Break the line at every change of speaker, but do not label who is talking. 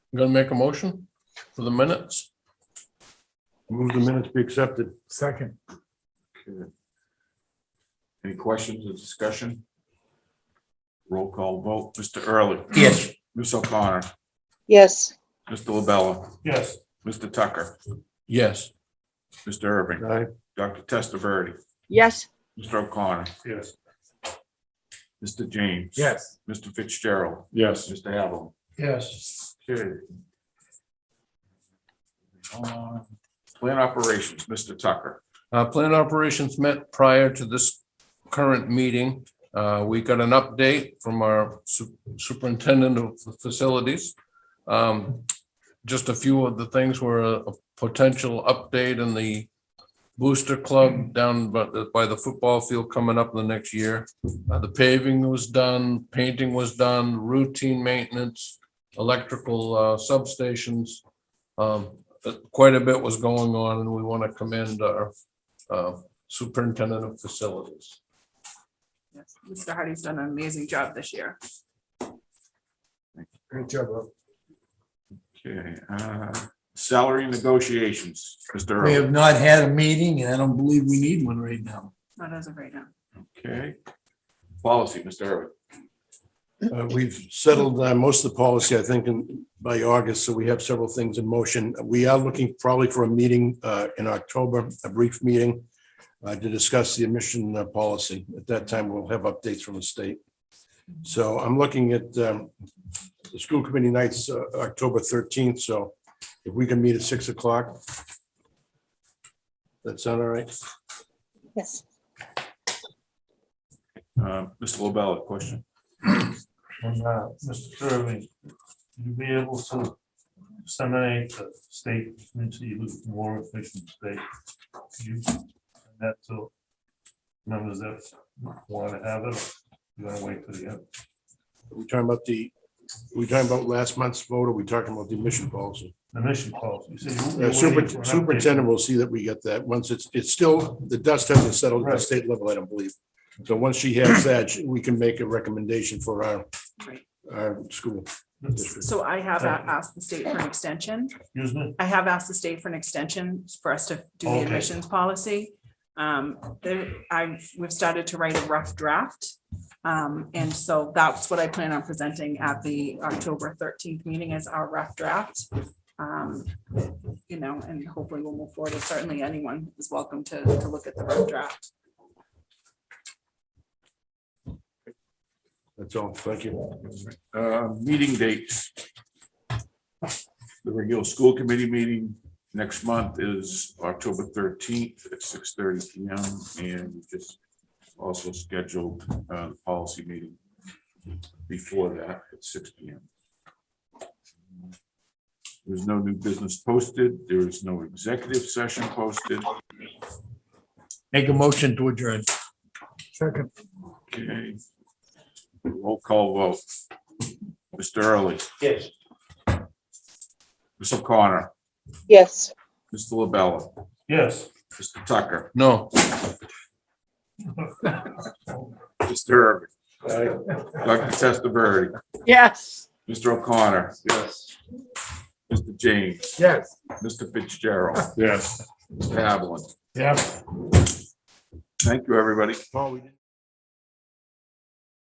I'm gonna make a motion for the minutes.
Move the minutes be accepted.
Second.
Any questions or discussion? Roll call vote, Mr. Early.
Yes.
Ms. O'Connor,
yes,
Mr. LaBella,
Yes.
Mr. Tucker,
Yes,
Mr. Irving,
Aye.
Dr. Testaverde,
yes,
Mr. O'Connor,
Yes.
Mr. James.
Yes.
Mr. Fitzgerald,
Yes.
Mr. Havel.
yes,
Okay. On Plan operations, Mr. Tucker.
uh, plan operations met prior to this current meeting. Uh, we got an update from our su- superintendent of facilities. Um, just a few of the things were a a potential update in the booster club down by, the- by the football field coming up in the next year. Uh, the paving was done, painting was done, routine maintenance, electrical, uh, substations. Um, but quite a bit was going on and we want to commend our, uh, superintendent of facilities.
Yes, Mr. Hardy's done an amazing job this year.
Great job, Rob.
Okay, uh, salary negotiations, Mr.
We
Early.
have not had a meeting and I don't believe we need one right now.
Not as of right now.
Okay. Policy, Mr. Irwin.
Uh, We've settled uh, most of the policy, I think, in- by August, so we have several things in motion. We are looking probably for a meeting uh, in October, a brief meeting uh, to discuss the admission uh, policy. At that time, we'll have updates from the state. So I'm looking at um, the school committee nights, uh, October 13th, so if we can meet at 6 o'clock. That sound all right?
yes.
Uh, Mr. LaBella, question.
And, uh, Mr. Kirby, you'll be able to disseminate the state, into you look more efficient state. You, send that to members that want to have it, you want to wait till the end.
Are we talking about the, are we talking about last month's vote, or are we talking about the admission policy?
The mission calls, you say. you're
Uh,
waiting
super-
for an update.
Superintendent will see that we get that. Once it's, it's still, the dust hasn't settled at the
Right.
state level, I don't believe. So once she has that, she- we can make a recommendation for our,
Right.
our school district.
So I have a- asked the state for an extension.
Excuse me,
I have asked the state for an extension for us to do the
Okay.
admissions policy. Um, there, I, we've started to write a rough draft. Um, and so that's what I plan on presenting at the October thirteenth meeting as our rough draft. Um, you know, and hopefully we'll move forward. And Certainly anyone is welcome to, to look at the rough draft.
That's all. Thank you.
Uh, meeting dates. The regular school committee meeting next month is October thirteenth at six thirty P M. And we just also scheduled, uh, the policy meeting before that at six P M. There's no new business posted. There is no executive session posted.
Make a motion to adjourn.
Second.
Okay. Roll call vote. Mr. Early,
yes.
Ms. O'Connor,
Yes.
Mr. LaBella,
Yes.
Mr. Tucker,
No,
Mr. Irving, Dr. Testaverde,
yes.
Mr. O'Connor,
Yes.
Mr. James,
Yes.
Mr. Fitzgerald,
Yes.
Mr. Havlin.
Yeah.
Thank you, everybody.
Paul, we didn't-